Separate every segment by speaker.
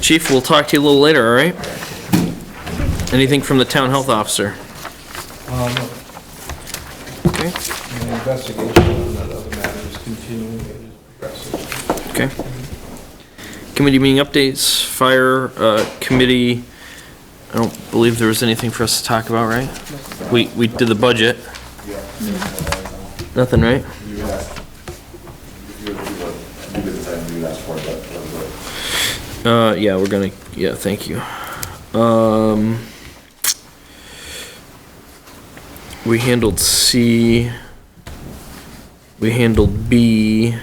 Speaker 1: chief. We'll talk to you a little later, all right? Anything from the town health officer?
Speaker 2: Um,
Speaker 1: Okay,
Speaker 2: and the investigation on that other matter is continuing, it is progressing.
Speaker 1: okay. Committee meeting updates, fire, uh, committee, I don't believe there was anything for us to talk about, right? We, we did the budget. Nothing, right?
Speaker 3: You would ask, you would, you would, you would decide you would ask for it, but, but,
Speaker 1: Uh, yeah, we're gonna, yeah, thank you. Um, we handled C, we handled B.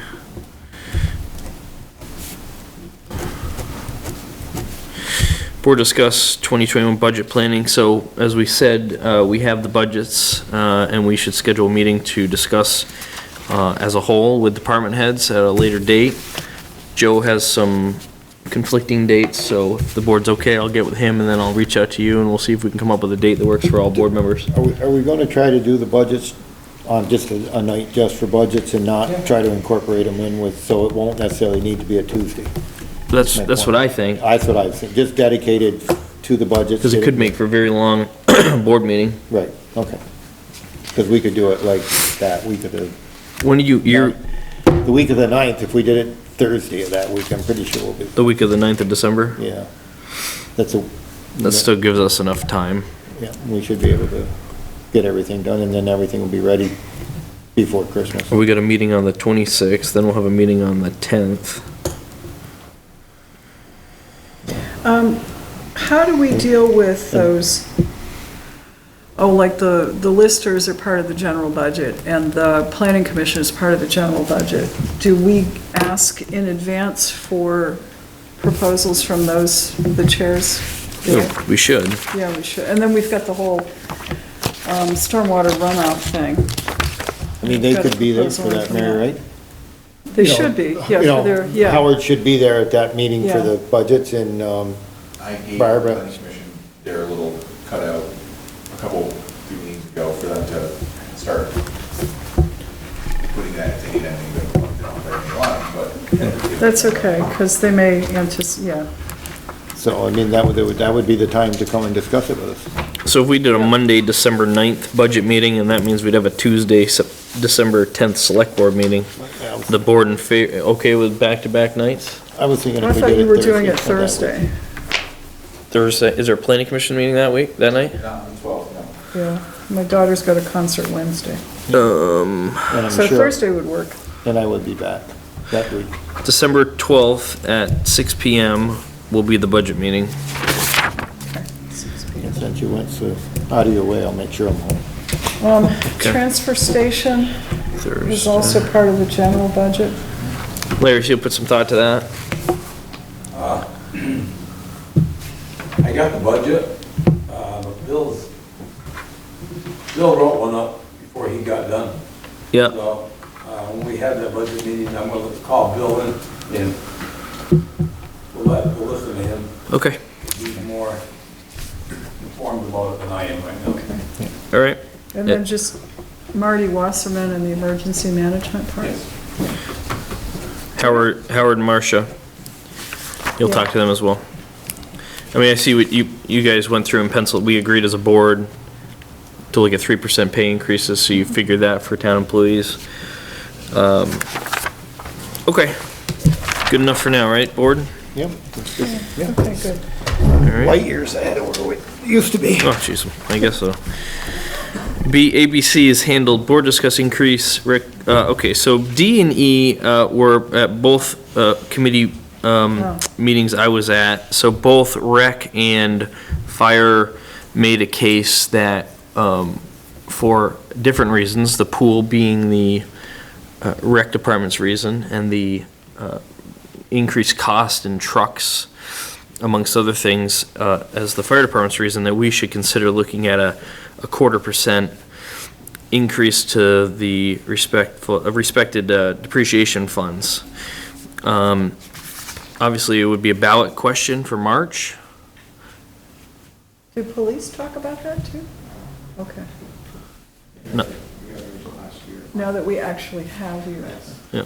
Speaker 1: Board discuss 2021 budget planning, so as we said, uh, we have the budgets, uh, and we should schedule a meeting to discuss uh, as a whole with department heads at a later date. Joe has some conflicting dates, so if the board's okay, I'll get with him, and then I'll reach out to you, and we'll see if we can come up with a date that works for all board members.
Speaker 4: Are we, are we gonna try to do the budgets on just a, a night just for budgets and not try to incorporate them in with, so it won't necessarily need to be a Tuesday?
Speaker 1: That's, that's what I think,
Speaker 4: That's what I was thinking, just dedicated to the budgets.
Speaker 1: because it could make for a very long board meeting.
Speaker 4: Right, okay. Because we could do it like that week of the,
Speaker 1: When do you, you're
Speaker 4: the week of the ninth, if we did it Thursday of that week, I'm pretty sure we'll be,
Speaker 1: the week of the 9th of December?
Speaker 4: yeah. That's a,
Speaker 1: That still gives us enough time.
Speaker 4: yeah, we should be able to get everything done, and then everything will be ready before Christmas.
Speaker 1: We got a meeting on the 26th, then we'll have a meeting on the 10th.
Speaker 5: How do we deal with those, oh, like the, the listers are part of the general budget, and the planning commission is part of the general budget? Do we ask in advance for proposals from those, the chairs?
Speaker 1: Yeah, We should.
Speaker 5: Yeah, we should, and then we've got the whole um, stormwater runoff thing.
Speaker 4: I mean, they could be there for that, Mary, right?
Speaker 5: They
Speaker 4: you know,
Speaker 5: should be, yeah,
Speaker 4: you know,
Speaker 5: for their, yeah.
Speaker 4: Howard should be there at that meeting for the
Speaker 5: Yeah.
Speaker 4: budgets and, um,
Speaker 3: I gave the
Speaker 4: Barbara.
Speaker 3: planning commission their little cutout a couple, few meetings ago for them to start putting that, taking that, and going, they don't very much, but.
Speaker 5: That's okay, because they may antici, yeah.
Speaker 4: so, I mean, that would, that would- that would be the time to come and discuss it with us.
Speaker 1: So if we did a Monday, December 9th budget meeting, and that means we'd have a Tuesday, Sep- December 10th select board meeting, the board in fa, okay with back-to-back nights?
Speaker 4: I was thinking
Speaker 5: I
Speaker 4: if we
Speaker 5: thought
Speaker 4: did it Thursday.
Speaker 5: you were doing it
Speaker 4: so that would-
Speaker 5: Thursday,
Speaker 1: Thursday, is there a planning commission meeting that week, that night?
Speaker 3: Not on the twelfth, no.
Speaker 5: yeah. My daughter's got a concert Wednesday,
Speaker 4: And I'm
Speaker 5: so
Speaker 4: sure,
Speaker 5: Thursday would work.
Speaker 4: and I would be back that week.
Speaker 1: December 12th at 6 PM will be the budget meeting.
Speaker 4: And since you went so out of your way, I'll make sure I'm home.
Speaker 5: Um, Transfer station is also part of the general budget.
Speaker 1: Larry, so you put some thought to that?
Speaker 6: I got the budget, uh, but Bill's, Bill wrote one up before he got done.
Speaker 1: Yeah,
Speaker 6: So, uh, when we have that budget meeting, I'm gonna call Bill in and we'll let, we'll listen to him.
Speaker 1: okay,
Speaker 6: He's more informed about it than I am right now. Okay.
Speaker 1: all right.
Speaker 5: And then
Speaker 1: Yeah.
Speaker 5: just Marty Wasserman and the emergency management part.
Speaker 6: Yes.
Speaker 1: Howard, Howard and Marcia. You'll talk to them as well. I mean, I see what you, you guys went through in pencil, we agreed as a board to look at 3% pay increases, so you figured that for town employees. Um, Okay, good enough for now, right, board?
Speaker 4: Yep.
Speaker 5: Okay, good.
Speaker 1: All right.
Speaker 4: Light years ahead of where we used to be.
Speaker 1: Oh, jeez, I guess so. B, ABC is handled, board discuss increase, Rick, uh, okay, so D and E, uh, were at both, uh, committee, um, meetings I was at, so both rec and fire made a case that, um, for different reasons, the pool being the, uh, rec department's reason, and the, uh, increased cost in trucks, amongst other things, uh, as the fire department's reason, that we should consider looking at a, a quarter percent increase to the respectful, uh, respected uh, depreciation funds. Um, Obviously, it would be a ballot question for March.
Speaker 5: Did police talk about that too? Okay,
Speaker 1: No.
Speaker 5: now that we actually have you.
Speaker 1: Yeah.